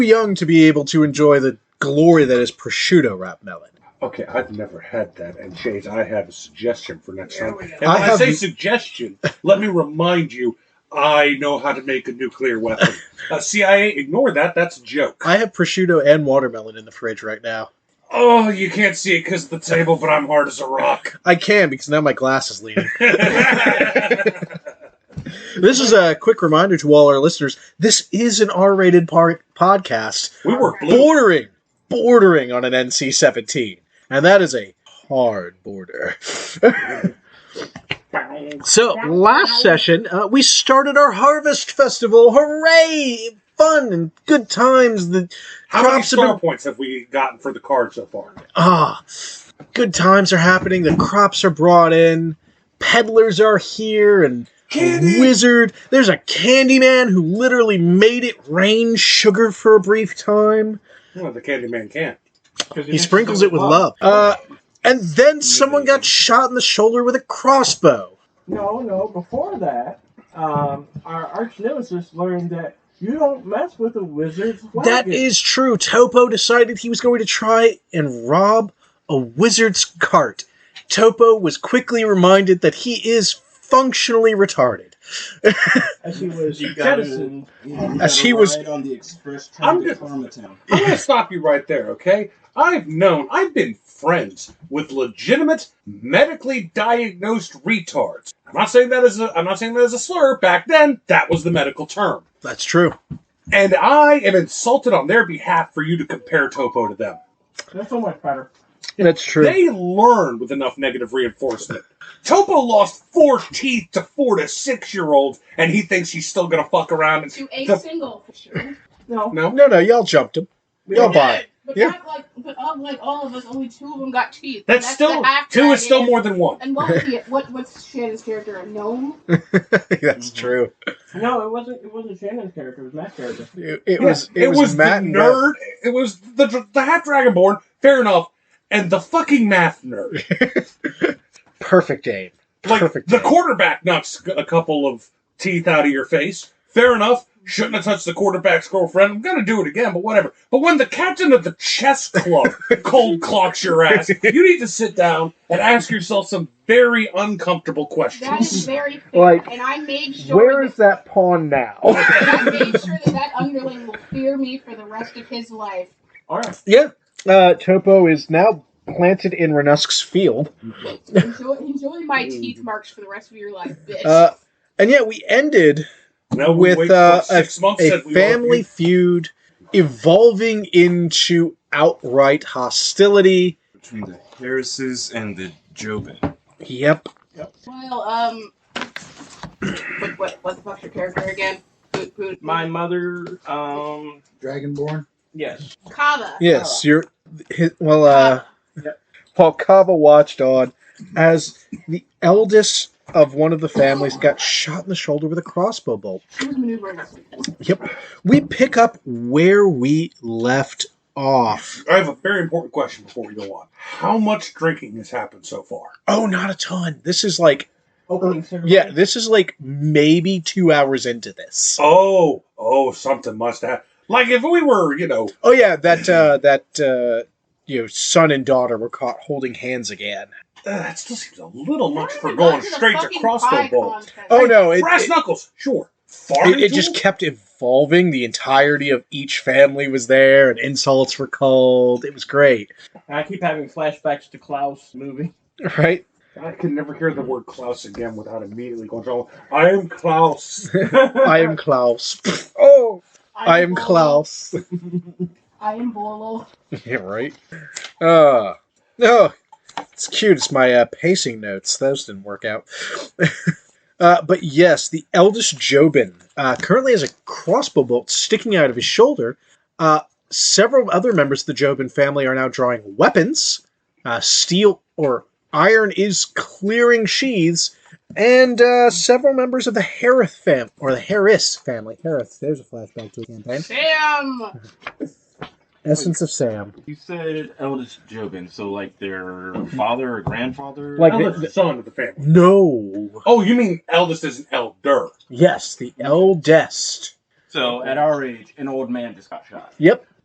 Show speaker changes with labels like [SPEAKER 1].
[SPEAKER 1] young to be able to enjoy the glory that is prosciutto wrapped melon.
[SPEAKER 2] Okay, I've never had that. And Chase, I have a suggestion for next time. And when
[SPEAKER 1] I
[SPEAKER 2] I,
[SPEAKER 1] have-
[SPEAKER 2] say suggestion, let me remind you, I know how to make a nuclear weapon. Uh, CIA, ignore that. That's a joke.
[SPEAKER 1] I have prosciutto and watermelon in the fridge right now.
[SPEAKER 2] Oh, you can't see it because of the table, but I'm hard as a rock.
[SPEAKER 1] I can because now my glass is leaning. this is a quick reminder to all our listeners this is an R rated par- podcast
[SPEAKER 2] we were blue.
[SPEAKER 1] bordering, bordering on an NC 17. And that is a hard border. so, last session, uh, we started our harvest festival. Hooray! Fun and good times. The
[SPEAKER 2] How many
[SPEAKER 1] crops have been
[SPEAKER 2] star points have we gotten for the card so far?
[SPEAKER 1] ah, good times are happening. The crops are brought in. Peddlers are here and
[SPEAKER 2] Candy!
[SPEAKER 1] a wizard. There's a candy man who literally made it rain sugar for a brief time.
[SPEAKER 2] Well, the Candyman can.
[SPEAKER 1] He sprinkles it with love. Uh, and then someone got shot in the shoulder with a crossbow.
[SPEAKER 3] No, no. Before that, um, our arch nemesis learned that you don't mess with a wizard's wagon.
[SPEAKER 1] That is true. Topo decided he was going to try and rob a wizard's cart. Topo was quickly reminded that he is functionally retarded.
[SPEAKER 4] As he was
[SPEAKER 5] You gotta-
[SPEAKER 4] jettisoned,
[SPEAKER 1] As he was-
[SPEAKER 5] ride on the express
[SPEAKER 2] I'm
[SPEAKER 5] train to
[SPEAKER 2] just-
[SPEAKER 5] Karmatown.
[SPEAKER 2] I'm going to stop you right there, okay? I've known, I've been friends with legitimate, medically diagnosed retards. I'm not saying that as a, I'm not saying that as a slur. Back then, that was the medical term,
[SPEAKER 1] That's true.
[SPEAKER 2] and I am insulted on their behalf for you to compare Topo to them.
[SPEAKER 4] That's so much better.
[SPEAKER 1] That's true.
[SPEAKER 2] They learn with enough negative reinforcement. Topo lost four teeth to four to six year olds, and he thinks he's still gonna fuck around. And
[SPEAKER 6] To a
[SPEAKER 2] The-
[SPEAKER 6] single. Sure.
[SPEAKER 4] No,
[SPEAKER 2] no,
[SPEAKER 1] no, no, y'all jumped him. Y'all bought it.
[SPEAKER 6] But
[SPEAKER 1] Yeah.
[SPEAKER 6] not like, but of like all of us, only two of them got teeth.
[SPEAKER 2] that's,
[SPEAKER 6] the
[SPEAKER 2] still
[SPEAKER 6] half
[SPEAKER 2] two is
[SPEAKER 6] dragon.
[SPEAKER 2] still more than one.
[SPEAKER 6] And what was he? What what's Shannon's character? A gnome?
[SPEAKER 1] That's true.
[SPEAKER 4] no. It wasn't. It wasn't Shannon's character. It was Matt's character.
[SPEAKER 1] It, it
[SPEAKER 2] Yeah,
[SPEAKER 1] was it, was, Matt
[SPEAKER 2] the
[SPEAKER 1] and Beth.
[SPEAKER 2] nerd. It was the dr- the half dragonborn. Fair enough. And the fucking math nerd,
[SPEAKER 1] Perfect aim.
[SPEAKER 2] like
[SPEAKER 1] Perfect.
[SPEAKER 2] the
[SPEAKER 1] aim.
[SPEAKER 2] quarterback, knocks a couple of teeth out of your face. Fair enough. Shouldn't have touched the quarterback's girlfriend. I'm gonna do it again, but whatever. But when the captain of the chess club cold clocks your ass, you need to sit down and ask yourself some very uncomfortable
[SPEAKER 6] That
[SPEAKER 2] questions.
[SPEAKER 6] is very fair.
[SPEAKER 1] Like,
[SPEAKER 6] and I made sure.
[SPEAKER 1] Where is that pawn now?
[SPEAKER 6] that, I made sure that that underling will fear me for the rest of his life.
[SPEAKER 4] All right.
[SPEAKER 1] yeah. Uh, Topo is now planted in Renusk's field.
[SPEAKER 6] Enjoy, enjoy my teeth marks for the rest of your life, bitch.
[SPEAKER 1] Uh, and yeah, we ended
[SPEAKER 2] Now we
[SPEAKER 1] With,
[SPEAKER 2] wait for
[SPEAKER 1] uh,
[SPEAKER 2] six months
[SPEAKER 1] a
[SPEAKER 2] said we
[SPEAKER 1] family feud evolving into outright hostility.
[SPEAKER 5] Between the Harrises and the Jobin.
[SPEAKER 1] Yep.
[SPEAKER 6] well, um, what what what the fuck's your character again? Boot, boot,
[SPEAKER 4] My mother. Um.
[SPEAKER 7] Dragonborn.
[SPEAKER 4] Yes.
[SPEAKER 6] Kava.
[SPEAKER 1] Yes, you're. hi- Well, uh, while Kava watched on as the eldest of one of the families got shot in the shoulder with a crossbow bolt.
[SPEAKER 6] She was maneuvering us.
[SPEAKER 1] Yep. We pick up where we left off.
[SPEAKER 2] I have a very important question before we go on. How much drinking has happened so far?
[SPEAKER 1] Oh, not a ton. This is like,
[SPEAKER 4] Opening ceremony.
[SPEAKER 1] yeah, this is like maybe two hours into this.
[SPEAKER 2] Oh, oh, something must have. Like if we were, you know,
[SPEAKER 1] Oh yeah, that uh, that uh, you know, son and daughter were caught holding hands again.
[SPEAKER 2] uh, that still seems a little much
[SPEAKER 6] Why
[SPEAKER 2] for
[SPEAKER 6] am I
[SPEAKER 2] going
[SPEAKER 6] going to the
[SPEAKER 2] straight to
[SPEAKER 6] fucking
[SPEAKER 2] crossbow
[SPEAKER 6] pie
[SPEAKER 2] bowl.
[SPEAKER 6] contest?
[SPEAKER 1] Oh no, it,
[SPEAKER 2] Brass
[SPEAKER 1] it,
[SPEAKER 2] knuckles, sure. Farting
[SPEAKER 1] it, it just
[SPEAKER 2] tool?
[SPEAKER 1] kept evolving. The entirety of each family was there, and insults were called. It was great,
[SPEAKER 4] I keep having flashbacks to Klaus movie.
[SPEAKER 1] right?
[SPEAKER 2] I can never hear the word Klaus again without immediately going. "Oh, I am Klaus.
[SPEAKER 1] I am Klaus. oh, I am
[SPEAKER 6] Bolo.
[SPEAKER 1] Klaus.
[SPEAKER 6] I am Bolo.
[SPEAKER 1] yeah, right. Uh, no, it's cute. It's my uh, pacing notes. Those didn't work out. uh, but yes, the eldest Jobin uh, currently has a crossbow bolt sticking out of his shoulder. Uh, several other members of the Jobin family are now drawing weapons. Uh, steel or iron is clearing sheaths. And uh, several members of the Harith fam or the Harris family. Harith, there's a flashback to a campaign.
[SPEAKER 6] Sam.
[SPEAKER 1] Essence of Sam.
[SPEAKER 5] You said eldest Jobin, so like their father or grandfather?
[SPEAKER 1] Like-
[SPEAKER 2] Eldest son of the family.
[SPEAKER 1] No.
[SPEAKER 2] Oh, you mean eldest is an elder?
[SPEAKER 1] Yes, the eldest.
[SPEAKER 5] So at our age, an old man just got shot.
[SPEAKER 1] Yep.